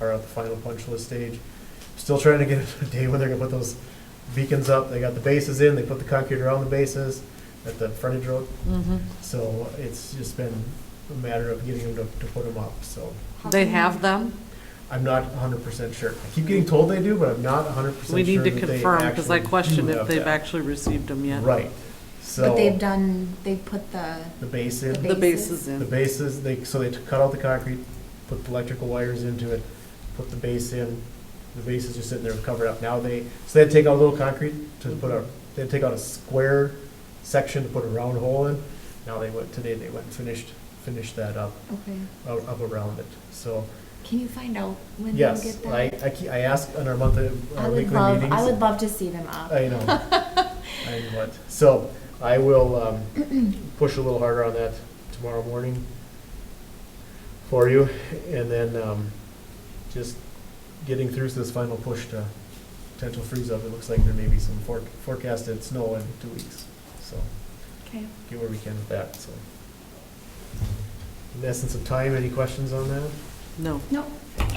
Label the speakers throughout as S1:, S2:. S1: are at the final punch list stage. Still trying to get a day when they're gonna put those beacons up. They got the bases in, they put the concrete around the bases at the frontage road.
S2: Mhm.
S1: So it's just been a matter of getting them to, to put them up, so.
S2: They have them?
S1: I'm not hundred percent sure. I keep getting told they do, but I'm not hundred percent sure.
S2: We need to
S1: that they
S2: confirm, because I
S1: actually
S2: question
S1: do
S2: if
S1: have
S2: they've
S1: that.
S2: actually received them yet.
S1: Right, so.
S3: But they've done, they've put the,
S1: The base in.
S3: The
S2: The
S3: Bases.
S2: bases
S1: The
S2: in.
S1: bases, they, so they cut out the concrete, put the electrical wires into it, put the base in. The base is just sitting there covered up. Now they, so they'd take out a little concrete to put a, they'd take out a square section to put a round hole in. Now they went, today they went and finished, finished that up,
S3: okay,
S1: up up around it. So,
S3: can you find out when they'll
S1: yes,
S3: get that?
S1: I, I, ke- I ask on our monthly,
S3: I
S1: our
S3: would
S1: weekly
S3: love,
S1: meetings.
S3: I would love to see them up.
S1: I know. I know it. So I will um, push a little harder on that tomorrow morning for you. And then um, just getting through this final push to potential freeze up. It looks like there may be some forec- forecasted snow in two weeks. So
S3: Okay,
S1: get where we can with that, so. In the essence of time, any questions on that?
S2: No.
S3: no,
S4: I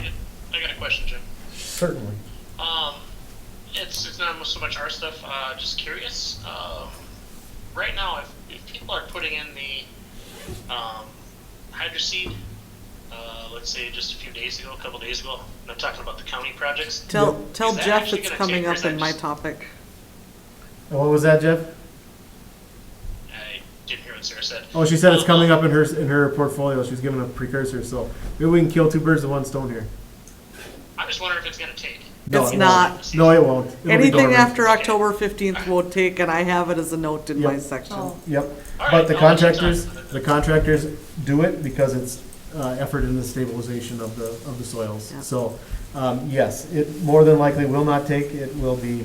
S4: got a question, Jim.
S1: Certainly.
S4: Um, it's, it's not so much our stuff. Uh, just curious. Um, right now, if, if people are putting in the um, hydroseed, uh, let's say just a few days ago, a couple days ago, and I'm talking about the county projects.
S2: Tell, tell
S4: Is that
S2: Jeff
S4: actually
S2: it's
S4: gonna
S2: coming
S4: take, or is
S2: up
S4: that
S2: in my
S4: just-
S2: topic.
S1: And what was that, Jeff?
S4: I didn't hear what Sarah said. Um,
S1: Oh, she said it's coming up in her, in her portfolio. She's giving a precursor, so maybe we can kill two birds with one stone here.
S4: I'm just wondering if it's going to take.
S1: No,
S2: It's
S1: it won't.
S2: not.
S1: No, it won't. It'll be
S2: Anything
S1: dormant.
S2: after
S4: Okay.
S2: October 15th will take, and I have it as a note in my
S1: Yep.
S2: section.
S3: oh,
S1: Yep,
S4: All
S1: but
S4: right,
S1: the
S4: I'll let you talk.
S1: contractors, the contractors do it because it's, uh, effort in the stabilization of the, of the soils.
S2: Yeah.
S1: So, um, yes, it more than likely will not take, it will be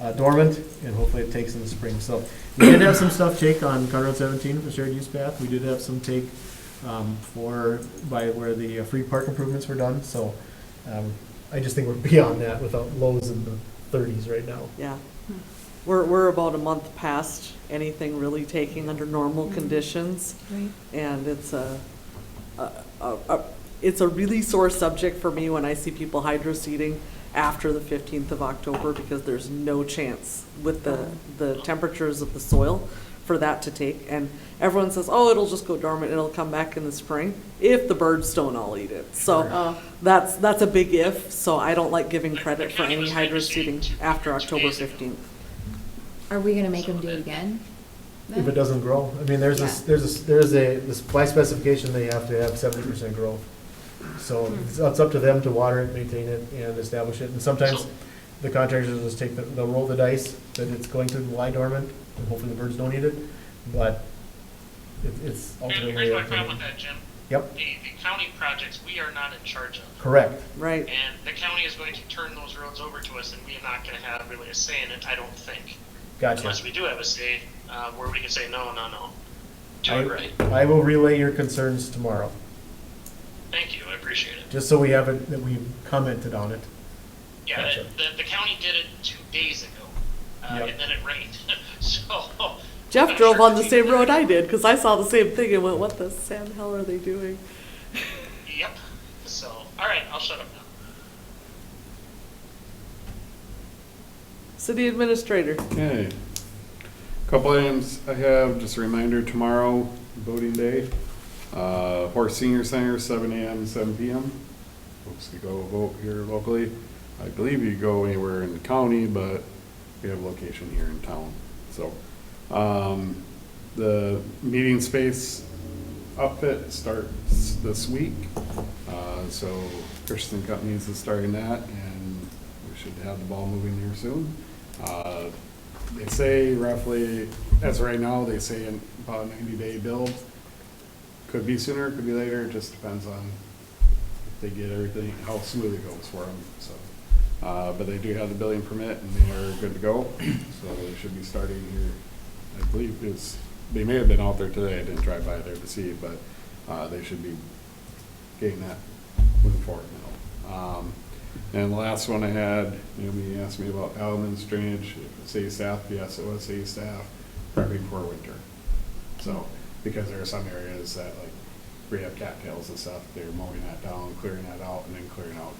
S1: uh, dormant, and hopefully it takes in the spring. So, we did have some stuff take on Conroe seventeen for shared use path, we did have some take, um, for, by where the uh, free park improvements were done, so, um, I just think we're beyond that without lows in the thirties right now.
S2: Yeah. We're, we're about a month past anything really taking under normal
S3: Mm-hmm.
S2: conditions.
S3: right,
S2: and it's a, a, a, a- it's a really sore subject for me when I see people hydro seeding after the fifteenth of October, because there's no chance with the, the temperatures of the soil for that to take, and everyone says, oh, it'll just go dormant, it'll come back in the spring, if the birds don't all eat it, so
S3: oh,
S2: that's, that's a big if, so I don't like giving
S4: Like,
S2: credit
S4: the
S2: for
S4: county
S2: any
S4: was
S2: hydro
S4: hydro-seeding
S2: seeding
S4: two-
S2: after
S4: two
S2: October
S4: days ago.
S2: fifteenth.
S3: are we gonna make them do it again?
S1: If it
S3: then?
S1: doesn't grow, I mean, there's
S3: Yeah.
S1: a, there's a, there's a, the supply specification, they have to have seventy percent growth. So it's it's up to them to water it, maintain it, and establish it, and sometimes the contractors will just take, the- they'll roll the dice that it's going to lie dormant, and hopefully the birds don't eat it, but it- it's
S4: And Here's
S1: ultimately.
S4: my
S1: up to
S4: problem with
S1: them.
S4: that, Jim.
S1: Yep,
S4: The, the county projects we are not in charge of.
S1: correct,
S2: Right,
S4: And the county is going to turn those roads over to us, and we are not gonna have really a say in it, I don't think.
S1: gotcha.
S4: Unless we do have a say, uh, where we can say, no, no, no. Do
S1: I-
S4: it right.
S1: I will relay your concerns tomorrow,
S4: Thank you, I appreciate it.
S1: just so we have it, that we've commented on it.
S4: Yeah,
S1: Gotcha.
S4: the, the county did it two days ago, uh,
S1: Yep.
S4: and then it rained, so.
S2: Jeff
S4: I'm
S2: drove
S4: sure
S2: on the
S4: he-
S2: same road I did, cause I saw the same thing and went, what the sand hell are they doing?
S4: Yep, so, all right, I'll shut up now.
S2: City administrator.
S5: Okay. Couple items I have, just a reminder, tomorrow, voting day, uh, Horace Senior Center, seven AM, seven PM. Folks can go vote here locally. I believe you go anywhere in the county, but we have a location here in town, so. Um, the meeting space outfit starts this week. Uh, so Christensen Companies is starting that and we should have the ball moving here soon. Uh, They say roughly, as of right now, they say in about ninety day build. Could be sooner, could be later, it just depends on if they get everything, how smooth it goes for them, so. Uh, but they do have the building permit and they are good to go, so they should be starting here. I believe it's, they may have been out there today, I didn't drive by there to see, but, uh, they should be getting that moving forward now. Um, and the last one I had, Naomi asked me about Alman's drainage, city staff, yes, it was city staff, prepping for winter. So, because there are some areas that like, we have cattails and stuff, they're mowing that down, clearing that out, and then clearing out